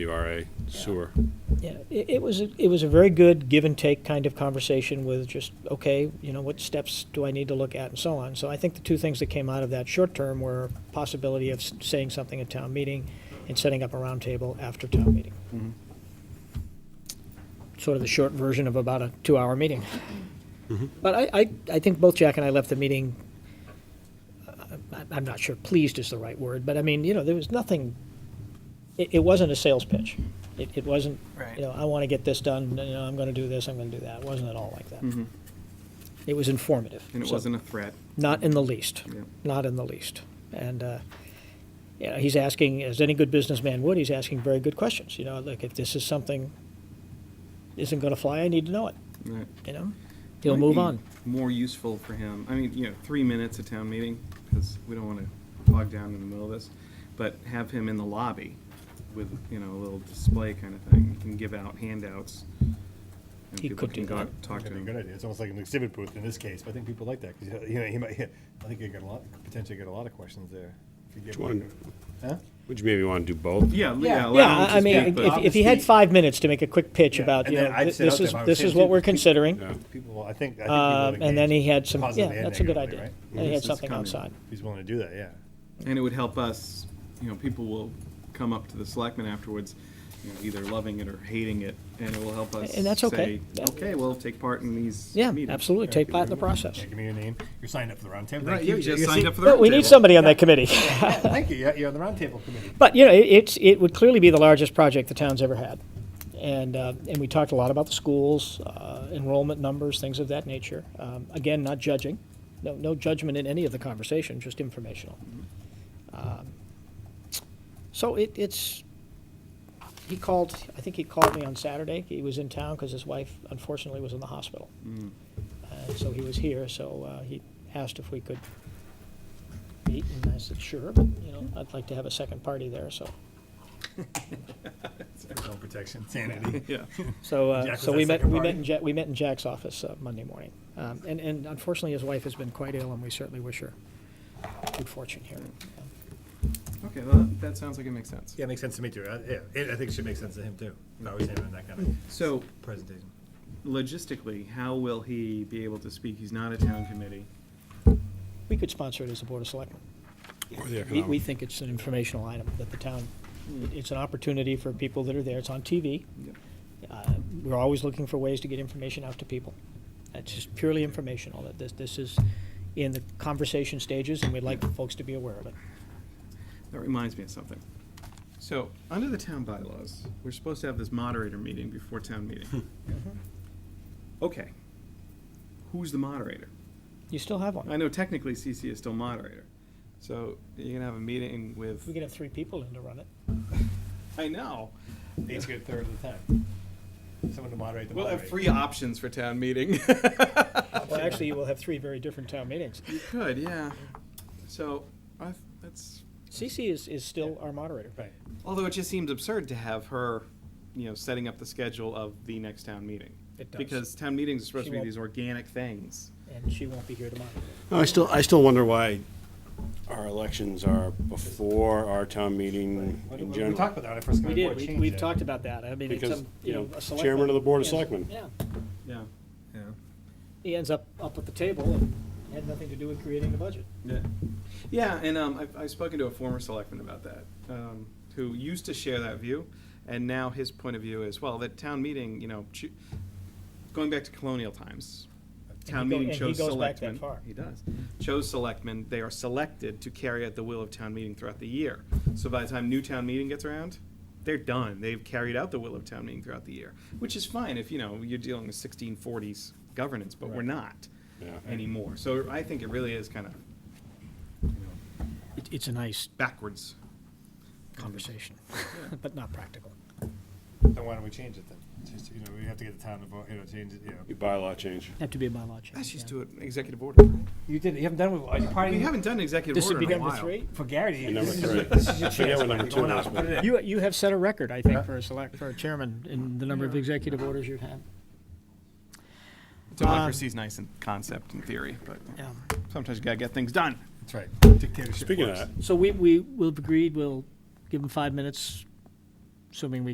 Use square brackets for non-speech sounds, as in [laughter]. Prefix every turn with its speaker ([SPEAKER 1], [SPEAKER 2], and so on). [SPEAKER 1] WRA sewer.
[SPEAKER 2] Yeah, it, it was, a- it was a very good give and take kind of conversation with just, okay, you know, what steps do I need to look at and so on. So I think the two things that came out of that short term were possibility of s- saying something at town meeting and setting up a roundtable after town meeting. Sort of the short version of about a two-hour meeting. But I, I, I think both Jack and I left the meeting, I- I'm not sure pleased is the right word, but I mean, you know, there was nothing, it, it wasn't a sales pitch. It, it wasn't,
[SPEAKER 3] Right.
[SPEAKER 2] you know, I want to get this done, you know, I'm going to do this, I'm going to do that. It wasn't at all like that. It was informative.
[SPEAKER 3] Mm-hmm. And it
[SPEAKER 2] so-
[SPEAKER 3] wasn't a threat.
[SPEAKER 2] Not in the least.
[SPEAKER 3] Yeah.
[SPEAKER 2] Not in the least. And, uh, yeah, he's asking, as any good businessman would, he's asking very good questions. You know, like if this is something isn't going to fly, I need to know it,
[SPEAKER 3] Right.
[SPEAKER 2] you know? He'll
[SPEAKER 3] Might
[SPEAKER 2] move
[SPEAKER 3] be
[SPEAKER 2] on.
[SPEAKER 3] More useful for him. I mean, you know, three minutes at town meeting, because we don't want to bog down in the middle of this, but have him in the lobby with, you know, a little display kind of thing. You can give out handouts. and
[SPEAKER 2] He
[SPEAKER 3] people
[SPEAKER 2] could
[SPEAKER 3] can
[SPEAKER 2] do
[SPEAKER 3] go
[SPEAKER 2] that.
[SPEAKER 3] out and Talk to
[SPEAKER 4] That'd be a
[SPEAKER 3] him.
[SPEAKER 4] good idea. It's almost like an exhibit booth in this case, but I think people like that, because, you know, he might, [laughs] I think you get a lot, potentially get a lot of questions there. If you
[SPEAKER 1] Which
[SPEAKER 4] get
[SPEAKER 1] one?
[SPEAKER 4] Huh?
[SPEAKER 1] Would you maybe want to do both?
[SPEAKER 3] Yeah,
[SPEAKER 4] Yeah.
[SPEAKER 3] yeah. allow
[SPEAKER 2] Yeah,
[SPEAKER 3] him to
[SPEAKER 2] I I mean,
[SPEAKER 3] speak, but-
[SPEAKER 2] if, if he had five minutes to make a quick pitch
[SPEAKER 4] Yeah,
[SPEAKER 2] about,
[SPEAKER 4] and
[SPEAKER 2] you know,
[SPEAKER 4] then I'd
[SPEAKER 2] th-
[SPEAKER 4] sit out
[SPEAKER 2] this
[SPEAKER 4] there
[SPEAKER 2] is,
[SPEAKER 4] if I was
[SPEAKER 2] this
[SPEAKER 4] him
[SPEAKER 2] is
[SPEAKER 4] too,
[SPEAKER 2] what we're
[SPEAKER 4] because people-
[SPEAKER 2] considering.
[SPEAKER 1] Yeah.
[SPEAKER 4] People, will- I think, I think people
[SPEAKER 2] Um,
[SPEAKER 4] would
[SPEAKER 2] and then
[SPEAKER 4] engage
[SPEAKER 2] he had some, yeah,
[SPEAKER 4] positively and
[SPEAKER 2] that's a good
[SPEAKER 4] negatively,
[SPEAKER 2] idea.
[SPEAKER 4] right?
[SPEAKER 2] And he
[SPEAKER 3] This
[SPEAKER 2] had
[SPEAKER 3] is
[SPEAKER 2] something
[SPEAKER 3] coming.
[SPEAKER 2] outside.
[SPEAKER 4] If He's willing to do that, yeah.
[SPEAKER 3] And it would help us, you know, people will come up to the selectmen afterwards, you know, either loving it or hating it, and it will help us
[SPEAKER 2] And that's okay.
[SPEAKER 3] say, okay, well, take part in these
[SPEAKER 2] Yeah,
[SPEAKER 3] meetings."
[SPEAKER 2] absolutely. Take part in the process.
[SPEAKER 4] Yeah, Give me your name. You're signed up for the roundtable.
[SPEAKER 3] Right,
[SPEAKER 4] Thank
[SPEAKER 3] you just
[SPEAKER 4] You're
[SPEAKER 3] signed
[SPEAKER 4] se- [laughs]
[SPEAKER 3] up for the
[SPEAKER 2] But we
[SPEAKER 3] roundtable.
[SPEAKER 2] need somebody on that committee.
[SPEAKER 4] Thank you, yeah, you're on the roundtable committee.
[SPEAKER 2] But, you know, it, it's, it would clearly be the largest project the town's ever had. And, uh, and we talked a lot about the schools, uh, enrollment numbers, things of that nature. Um, again, not judging, no, no judgment in any of the conversation, just informational. Um, So it, it's, he called, I think he called me on Saturday. He was in town because his wife unfortunately was in the hospital. Uh, so he was here, so, uh, he asked if we could meet, and I said, sure, but, you know, I'd like to have a second party there, so.
[SPEAKER 4] Personal protection, sanity.
[SPEAKER 3] Yeah.
[SPEAKER 2] So, uh,
[SPEAKER 4] Jack was
[SPEAKER 2] so
[SPEAKER 4] that
[SPEAKER 2] we met,
[SPEAKER 4] second
[SPEAKER 2] we met
[SPEAKER 4] party?
[SPEAKER 2] in Jack, we met in Jack's office uh, Monday morning. Um, And, and unfortunately, his wife has been quite ill, and we certainly wish her good fortune here.
[SPEAKER 3] [laughs] Okay, well, that- that sounds like it makes sense.
[SPEAKER 4] Yeah, makes sense to me too. Uh, Yeah, it- I think it should make sense to him too. If I was him in that kind of
[SPEAKER 3] So
[SPEAKER 4] presentation.
[SPEAKER 3] logistically, how will he be able to speak? He's not a town committee.
[SPEAKER 2] We could sponsor it as a Board of Selectmen.
[SPEAKER 1] Or the
[SPEAKER 2] We, we
[SPEAKER 1] economic?
[SPEAKER 2] think it's an informational item that the town, it's an opportunity for people that are there. It's on TV.
[SPEAKER 3] Yep.
[SPEAKER 2] Uh, We're always looking for ways to get information out to people. It's just purely informational, that this, this is in the conversation stages, and we'd like folks to be aware of it.
[SPEAKER 3] That reminds me of something. So, under the town bylaws, we're supposed to have this moderator meeting before town [laughs] meeting. Mm-hmm. Okay. Who's the moderator?
[SPEAKER 2] You still have
[SPEAKER 3] I
[SPEAKER 2] one.
[SPEAKER 3] know technically CC is still moderator. So you're gonna have a meeting with.
[SPEAKER 2] We could have three people in to run it.
[SPEAKER 3] I know.
[SPEAKER 4] Needs to get a third of the time. Someone to moderate the
[SPEAKER 3] We'll have
[SPEAKER 4] moderator.
[SPEAKER 3] free options for town meeting. [laughs]
[SPEAKER 2] Well, actually, you will have three very different town meetings.
[SPEAKER 3] you could, yeah. So I, that's
[SPEAKER 2] CC is, is still our moderator.
[SPEAKER 4] Right.
[SPEAKER 3] although it just seems absurd to have her, you know, setting up the schedule of the next town meeting.
[SPEAKER 2] It does.
[SPEAKER 3] Because town meetings are supposed
[SPEAKER 2] She
[SPEAKER 3] to be
[SPEAKER 2] won't-
[SPEAKER 3] these organic things.
[SPEAKER 2] And she won't be here tomorrow.
[SPEAKER 1] No, I still, I still wonder why our elections are before our town meeting
[SPEAKER 4] What-
[SPEAKER 1] in
[SPEAKER 4] what- We talked
[SPEAKER 1] general.
[SPEAKER 4] about that when I
[SPEAKER 2] We
[SPEAKER 4] first got on
[SPEAKER 2] did,
[SPEAKER 4] board.
[SPEAKER 2] we,
[SPEAKER 4] change
[SPEAKER 2] we've
[SPEAKER 4] it.
[SPEAKER 2] talked about that. I mean, it's
[SPEAKER 1] Because,
[SPEAKER 2] some,
[SPEAKER 1] you know,
[SPEAKER 2] a selectman-
[SPEAKER 1] chairman of the board of
[SPEAKER 2] Yeah,
[SPEAKER 1] selectmen.
[SPEAKER 2] Yeah,
[SPEAKER 3] Yeah.
[SPEAKER 4] Yeah.
[SPEAKER 2] he ends up, up at the table and had nothing to do with creating the budget.
[SPEAKER 3] Yeah, yeah, and um, I've, I've spoken to a former selectman about that, um, who used to share that view, and now his point of view is well that town meeting, you know, choo- going back to colonial times, town
[SPEAKER 2] he go-
[SPEAKER 3] meeting
[SPEAKER 2] and he
[SPEAKER 3] chose
[SPEAKER 2] goes back
[SPEAKER 3] selectmen.
[SPEAKER 2] that far.
[SPEAKER 3] He does chose selectmen. They are selected to carry out the will of town meeting throughout the year. So by the time new town meeting gets around. They're done. They've carried out the will of town meeting throughout the year, which is fine if you know you're dealing with 1640s governance, but we're
[SPEAKER 4] Right.
[SPEAKER 3] not
[SPEAKER 1] Yeah.
[SPEAKER 3] anymore. So I think it really is kind of
[SPEAKER 2] It, it's a nice
[SPEAKER 3] backwards.
[SPEAKER 2] conversation, [laughs] but not practical.
[SPEAKER 4] Then why don't we change it then? Just, you know, we have to get the town to vote, you know, change it, you know.
[SPEAKER 1] Your bylaw change.
[SPEAKER 2] Have to be a bylaw
[SPEAKER 3] Let's just
[SPEAKER 2] yeah.
[SPEAKER 3] do an executive order.
[SPEAKER 4] You did, you haven't done it, you
[SPEAKER 3] We
[SPEAKER 4] probably,
[SPEAKER 3] haven't done an executive
[SPEAKER 2] This would
[SPEAKER 3] order
[SPEAKER 2] be
[SPEAKER 3] in a
[SPEAKER 2] number
[SPEAKER 3] while.
[SPEAKER 2] three?
[SPEAKER 4] for Gary.
[SPEAKER 1] And number
[SPEAKER 4] this is-
[SPEAKER 1] three.
[SPEAKER 4] This is your
[SPEAKER 1] I forget
[SPEAKER 4] chance.
[SPEAKER 1] what number
[SPEAKER 4] Go
[SPEAKER 1] two
[SPEAKER 4] on
[SPEAKER 1] is,
[SPEAKER 4] out,
[SPEAKER 1] but-
[SPEAKER 4] put it in.
[SPEAKER 2] You, you have set a record, I think, for a select, for a chairman in the number of executive orders you've had.
[SPEAKER 3] Democracy is nice in concept and theory, but
[SPEAKER 2] Yeah.
[SPEAKER 3] sometimes you gotta get things done.
[SPEAKER 4] That's right. Dictatorship
[SPEAKER 1] Speaking of
[SPEAKER 4] works.
[SPEAKER 1] that,
[SPEAKER 2] So we, we, we've agreed, we'll give him five minutes, assuming we